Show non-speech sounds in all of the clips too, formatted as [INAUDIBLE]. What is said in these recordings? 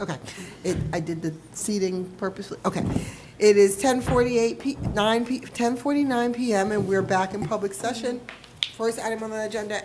Okay. It, I did the seating purposely, okay. It is 10:48 P, 9 P, 10:49 PM, and we're back in public session. First item on the agenda,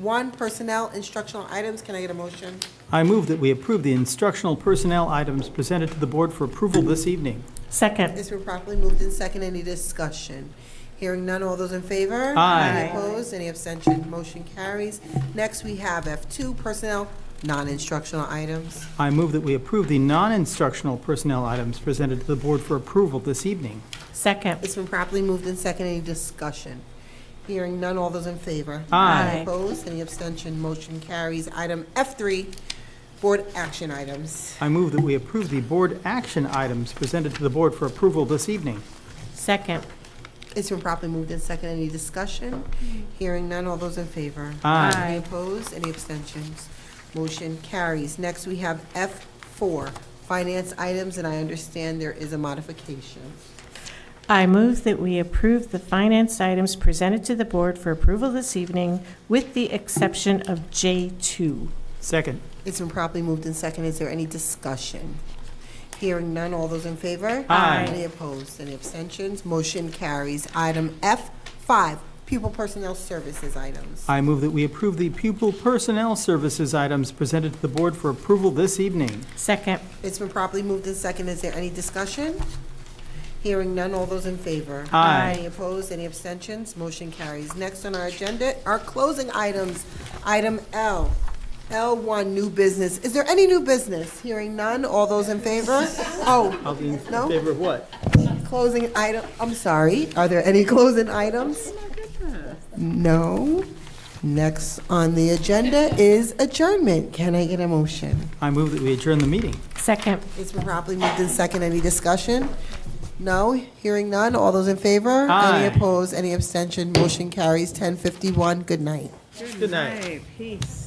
F1, Personnel Instructional Items. Can I get a motion? I move that we approve the instructional personnel items presented to the board for approval this evening. Second. It's been properly moved in second. Any discussion? Hearing none. All those in favor? Aye. Any opposed? Any abstention? Motion carries. Next, we have F2, Personnel Non-Instructional Items. I move that we approve the non-instructional personnel items presented to the board for approval this evening. Second. It's been properly moved in second. Any discussion? Hearing none. All those in favor? Aye. Any opposed? Any abstention? Motion carries. Item F3, Board Action Items. I move that we approve the board action items presented to the board for approval this evening. Second. It's been properly moved in second. Any discussion? Hearing none. All those in favor? Aye. Any opposed? Any abstentions? Motion carries. Next, we have F4, Finance Items, and I understand there is a modification. I move that we approve the finance items presented to the board for approval this evening with the exception of J2. Second. It's been properly moved in second. Is there any discussion? Hearing none. All those in favor? Aye. Any opposed? Any abstentions? Motion carries. Item F5, Pupil Personnel Services Items. I move that we approve the pupil personnel services items presented to the board for approval this evening. Second. It's been properly moved in second. Is there any discussion? Hearing none. All those in favor? Aye. Any opposed? Any abstentions? Motion carries. Next on our agenda are closing items. Item L, L1, New Business. Is there any new business? Hearing none. All those in [LAUGHS] favor? Oh, I'll be in No? favor of what? Closing item, I'm sorry, are there any [LAUGHS] closing items? No. Next on the agenda is adjournment. Can I get a motion? I move that we adjourn the meeting. Second. It's been properly moved in second. Any discussion? No? Hearing none? All those in favor? Aye. Any opposed? Any abstention? Motion carries 1051. Good night. Good night. Hey, peace.